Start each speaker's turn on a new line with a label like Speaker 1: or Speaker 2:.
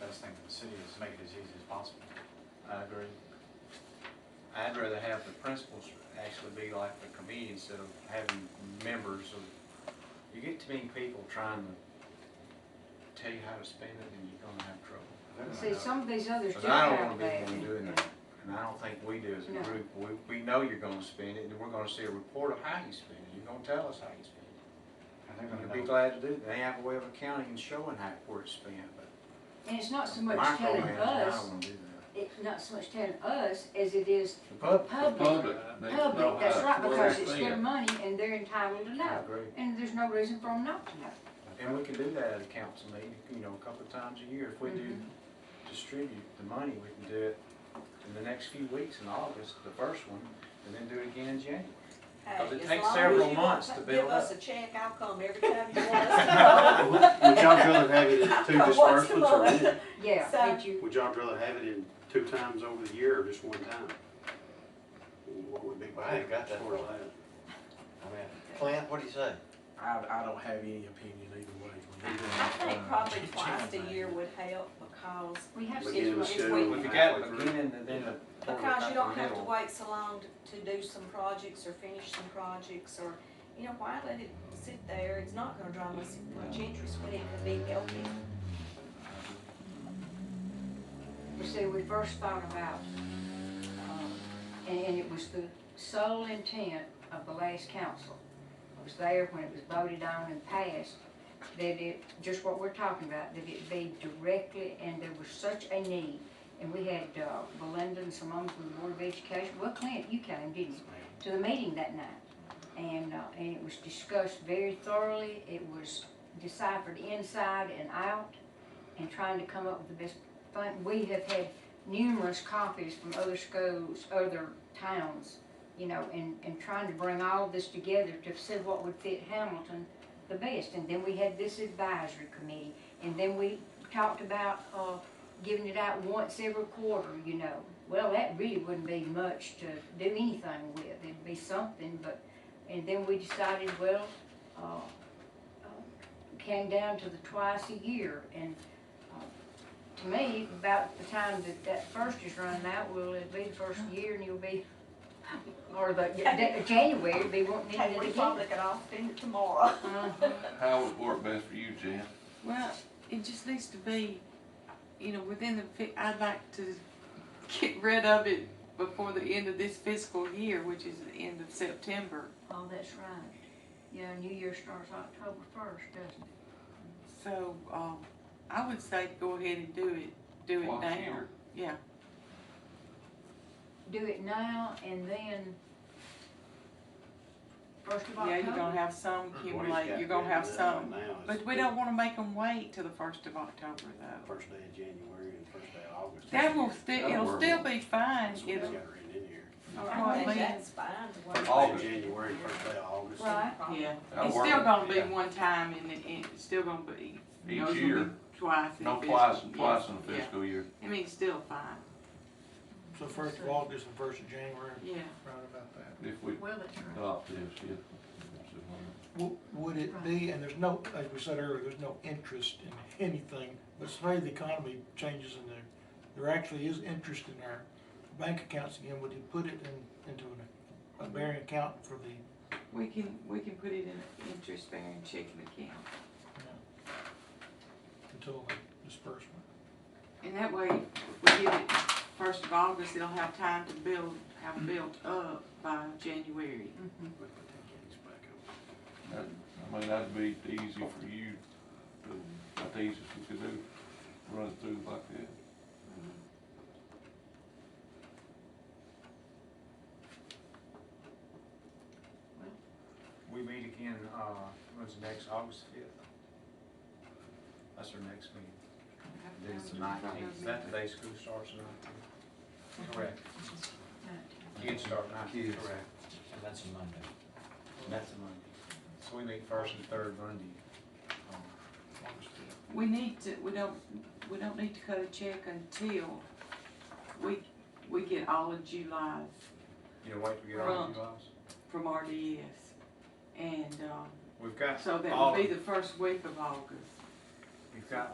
Speaker 1: the city is make it as easy as possible. I agree. I'd rather have the principals actually be like the committee instead of having members of, you get too many people trying to tell you how to spend it and you're gonna have trouble.
Speaker 2: See, some of these others
Speaker 1: Because
Speaker 2: do
Speaker 1: I don't wanna
Speaker 2: have
Speaker 1: be the
Speaker 2: that.
Speaker 1: one doing that, and I don't think we do as
Speaker 2: No.
Speaker 1: a group, we, we know you're gonna spend it, and we're gonna see a report of how you spend it, you're gonna tell us how you spend it.
Speaker 3: And they're
Speaker 1: And we'd
Speaker 3: gonna
Speaker 1: be
Speaker 3: know.
Speaker 1: glad to do, that. they have a way of accounting and showing how, where it's spent, but.
Speaker 2: And it's not so much
Speaker 1: micromanaging,
Speaker 2: telling
Speaker 1: I don't
Speaker 2: us,
Speaker 1: wanna do that.
Speaker 2: it's not so much telling us as it is
Speaker 1: The pub,
Speaker 2: public.
Speaker 4: Public. needs to know
Speaker 2: Public, that's
Speaker 4: how-
Speaker 2: right,
Speaker 4: where
Speaker 2: because
Speaker 4: they
Speaker 2: it's
Speaker 4: stand.
Speaker 2: their money and they're entitled to
Speaker 1: I
Speaker 2: know.
Speaker 1: agree.
Speaker 2: And there's no reason for them not to know.
Speaker 1: And we can do that at a council meeting, you know, a couple of times a year. If we do
Speaker 5: Mm-hmm.
Speaker 1: distribute the money, we can do it in the next few weeks in August, the first one, and then do it again in January. Because it
Speaker 5: Hey, as
Speaker 1: takes
Speaker 5: long as
Speaker 1: several
Speaker 5: you
Speaker 1: months
Speaker 5: won't
Speaker 1: to build
Speaker 5: Give us
Speaker 1: up.
Speaker 5: a check, I'll come every time you want us
Speaker 3: Would would y'all rather have it in two
Speaker 5: What's the
Speaker 3: disbursements or,
Speaker 5: month?
Speaker 3: one?
Speaker 2: Yeah,
Speaker 5: So-
Speaker 2: did you,
Speaker 3: would y'all rather have it in two times over the year or just one time? What would be,
Speaker 6: I ain't got that
Speaker 3: for
Speaker 6: far.
Speaker 3: that?
Speaker 6: I mean, Clint, what do you say?
Speaker 7: I, I don't have any opinion either way. when you do
Speaker 5: to. I think
Speaker 7: that,
Speaker 5: probably
Speaker 7: uh,
Speaker 5: twice
Speaker 7: chain
Speaker 5: a year
Speaker 7: thing.
Speaker 5: would help because,
Speaker 2: we have
Speaker 3: Beginning
Speaker 2: six
Speaker 3: of
Speaker 2: months.
Speaker 3: school.
Speaker 5: we-
Speaker 1: If you got it beginning and then the.
Speaker 5: because you don't have to wait so long to, to do some projects or finish some projects or, you know, why let it sit there? It's not gonna draw much, much interest when it could be helping.
Speaker 2: You see, we first thought about, um, and, and it was the sole intent of the last council. It was there when it was voted on and passed, that it, just what we're talking about, that it be directly, and there was such a need. And we had, uh, Belinda and Simone from the Board of Education, well, Clint, you came, didn't you, to the meeting that night? And, uh, and it was discussed very thoroughly, it was deciphered inside and out, and trying to come up with the best but we have had numerous copies from other schools, other towns, you know, and, and trying to bring all this together to see what would fit Hamilton the best. And then we had this advisory committee, and then we talked about, uh, giving it out once every quarter, you know. Well, that really wouldn't be much to do anything with, it'd be something, but, and then we decided, well, uh, uh, came down to the twice a year, and uh, to me, about the time that that first is running out, will it be the first year and you'll be, or the, the- January, it'll be wanting
Speaker 5: Hey,
Speaker 2: it
Speaker 5: we
Speaker 2: again.
Speaker 5: probably could all spend it tomorrow.
Speaker 2: Uh-huh.
Speaker 4: How would work best for you, Jan?
Speaker 8: Well, it just needs to be, you know, within the, fi- I'd like to get rid of it before the end of this fiscal year, which is the end of September.
Speaker 2: Oh, that's right. Yeah, New Year starts October first, doesn't it?
Speaker 8: So, um, I would say go ahead and do it, do it
Speaker 4: Once a
Speaker 8: now.
Speaker 4: year.
Speaker 8: Yeah,
Speaker 2: Do it now and then, first of
Speaker 8: yeah, you're gonna
Speaker 2: October.
Speaker 8: have some
Speaker 3: What he's
Speaker 8: accumulate,
Speaker 3: got
Speaker 8: you're gonna
Speaker 3: written
Speaker 8: have
Speaker 3: down
Speaker 8: some.
Speaker 3: right now is
Speaker 8: But we don't wanna make them wait till the first of October though.
Speaker 3: First day of January and first day of August.
Speaker 8: That will still,
Speaker 4: That'll
Speaker 8: it'll
Speaker 4: work.
Speaker 8: still be fine,
Speaker 3: That's what he's got
Speaker 8: it'll,
Speaker 3: written in here.
Speaker 5: I think
Speaker 8: Well,
Speaker 5: that's fine to work.
Speaker 3: First
Speaker 5: with.
Speaker 3: day of
Speaker 4: August.
Speaker 3: January, first day of August.
Speaker 2: Right.
Speaker 5: Probably.
Speaker 8: yeah,
Speaker 4: That'll
Speaker 8: it's
Speaker 4: work.
Speaker 8: still gonna be
Speaker 4: Yeah.
Speaker 8: one time and it, it's still gonna be, you
Speaker 4: Each
Speaker 8: know, it's gonna be
Speaker 4: year,
Speaker 8: twice. in
Speaker 4: no
Speaker 8: the
Speaker 4: twice,
Speaker 8: fiscal-
Speaker 4: twice
Speaker 8: yeah,
Speaker 4: in the
Speaker 8: yeah.
Speaker 4: fiscal year.
Speaker 8: I mean, it's still fine,
Speaker 7: So first of August and first of January,
Speaker 8: yeah.
Speaker 7: right about that.
Speaker 4: If we
Speaker 2: Well, that's right.
Speaker 4: adopt this, yeah.
Speaker 7: W- Would it be, and there's no, as we said earlier, there's no interest in anything, but say the economy changes and there, there actually is interest in our bank accounts again, would you put it in, into an, a bearing account for the,
Speaker 8: We can, we can put it in an interest-bearing checking account,
Speaker 7: until the disbursement?
Speaker 8: and that way, if we give it first of August, it'll have time to build, have built up by January.
Speaker 2: Mhm.
Speaker 3: We put that case back up.
Speaker 4: That- I mean, that'd be easy for you, to- that's the easiest we could do, run it through like that.
Speaker 1: We meet again, uh, when's the next, August fifth? That's our next meeting.
Speaker 8: Mm-hmm.
Speaker 1: Then it's the nineteenth. Is that the day school starts the nineteenth?
Speaker 5: Mm-hmm.
Speaker 1: Correct. Kids start nineteenth,
Speaker 6: Kids.
Speaker 1: correct.
Speaker 6: And that's a Monday.
Speaker 1: And that's a Monday. So we meet first and third Monday. um,
Speaker 8: We need to, we don't, we don't need to cut a check until we, we get all of July's
Speaker 1: You know, wait till we get all
Speaker 8: Right.
Speaker 1: the jobs.
Speaker 8: from RDS, and, um,
Speaker 1: We've got
Speaker 8: so that
Speaker 1: all,
Speaker 8: would be the first week of August.
Speaker 1: we've got